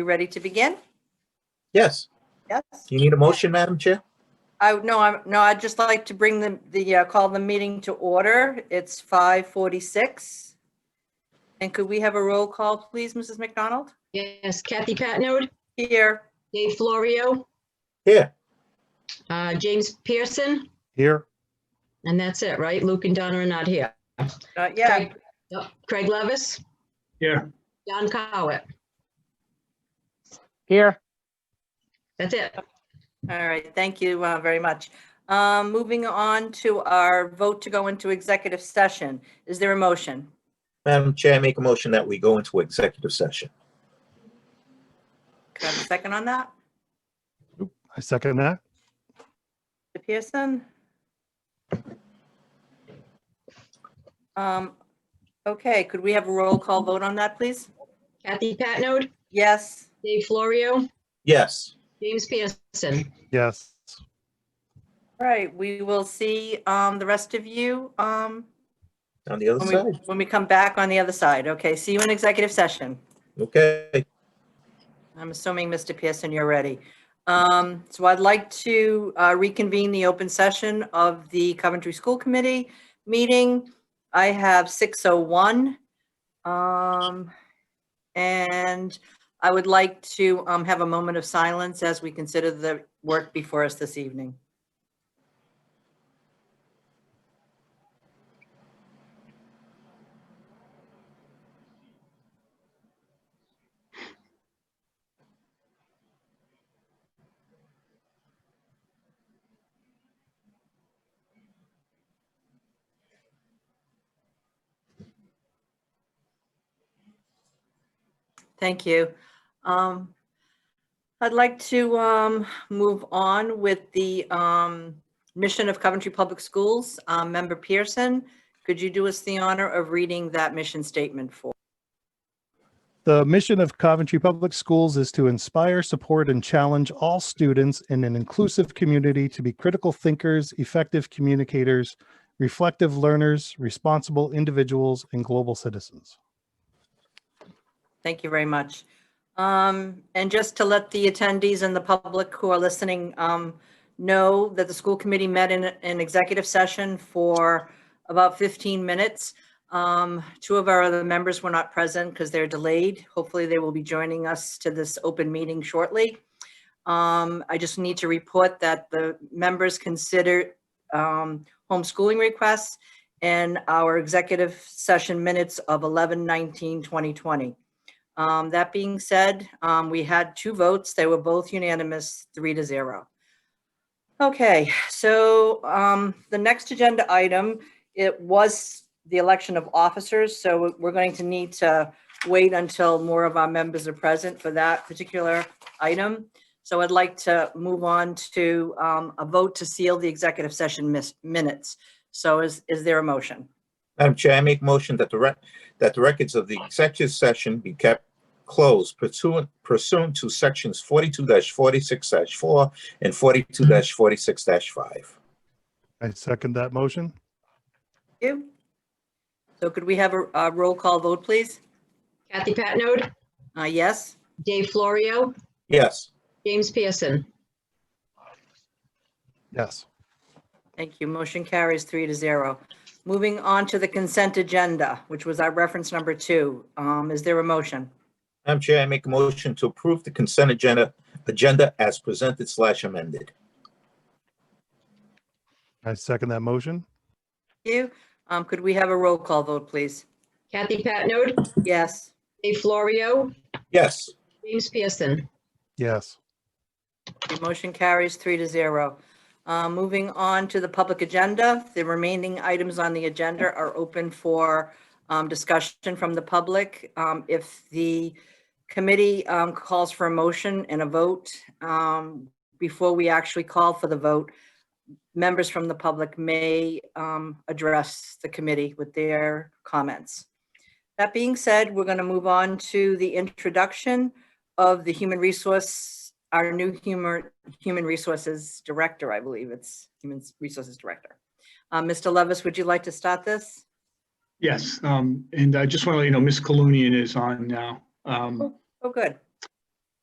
We ready to begin? Yes. Yes. Do you need a motion, Madam Chair? I, no, I'm, no, I'd just like to bring the, the, uh, call the meeting to order. It's 5:46. And could we have a roll call, please, Mrs. McDonald? Yes, Kathy Patnode, Here. Dave Florio, Here. uh, James Pearson, Here, and that's it, right? Luke and Donna are not here. Uh, Yeah, Craig- Yep. Craig Levis? Here. John Cowett, here, that's it. all right, thank you uh, very much. Um, Moving on to our vote to go into executive session. Is there a motion? Madam Chair, I make a motion that we go into executive session. Could I have a second on that? I second that. Mr. Pearson? Um, Okay, could we have a roll call vote on that, please? Kathy Patnode, Yes. Dave Florio, Yes. James Pearson. Yes. Right, we will see um, the rest of you um, On the other when we- side. when we come back on the other side. Okay, see you in executive session. Okay. I'm assuming, Mr. Pearson, you're ready. Um, So I'd like to uh, reconvene the open session of the Coventry School Committee meeting. I have 6:01. Um, And I would like to um, have a moment of silence as we consider the work before us this evening. Thank you. Um, I'd like to um, move on with the um, mission of Coventry Public Schools. Um, Member Pearson, could you do us the honor of reading that mission statement for? The mission of Coventry Public Schools is to inspire, support, and challenge all students in an inclusive community to be critical thinkers, effective communicators, reflective learners, responsible individuals, and global citizens. Thank you very much. Um, And just to let the attendees and the public who are listening um, know that the school committee met in an executive session for about 15 minutes. Um, Two of our other members were not present because they're delayed. Hopefully, they will be joining us to this open meeting shortly. Um, I just need to report that the members consider um, homeschooling requests and our executive session minutes of 11/19/2020. Um, That being said, um, we had two votes. They were both unanimous, three to zero. Okay, so um, the next agenda item, it was the election of officers, so we're going to need to wait until more of our members are present for that particular item. So I'd like to move on to um, a vote to seal the executive session mis- minutes. So is, is there a motion? Madam Chair, I make a motion that the rec, that the records of the executive session be kept closed pursuant, pursuant to sections forty-two forty-six four and forty-two forty-six five. I second that motion. You? So could we have a, a roll call vote, please? Kathy Patnode, Uh, yes? Dave Florio, Yes. James Pearson. Yes. Thank you. Motion carries three to zero. Moving on to the consent agenda, which was our reference number two. Um, is there a motion? Madam Chair, I make a motion to approve the consent agenda, agenda as presented slash amended. I second that motion. You, um, could we have a roll call vote, please? Kathy Patnode, Yes? Dave Florio, Yes. James Pearson. Yes. The motion carries three to zero. Uh, Moving on to the public agenda, the remaining items on the agenda are open for um, discussion from the public. Um, If the committee um, calls for a motion and a vote, um, before we actually call for the vote, members from the public may um, address the committee with their comments. That being said, we're going to move on to the introduction of the human resource, our new humor, human resources director, I believe it's human resources director. Uh, Mr. Levis, would you like to start this? Yes, um, and I just want to let you know, Miss Colunian is on now. Um, Oh, good.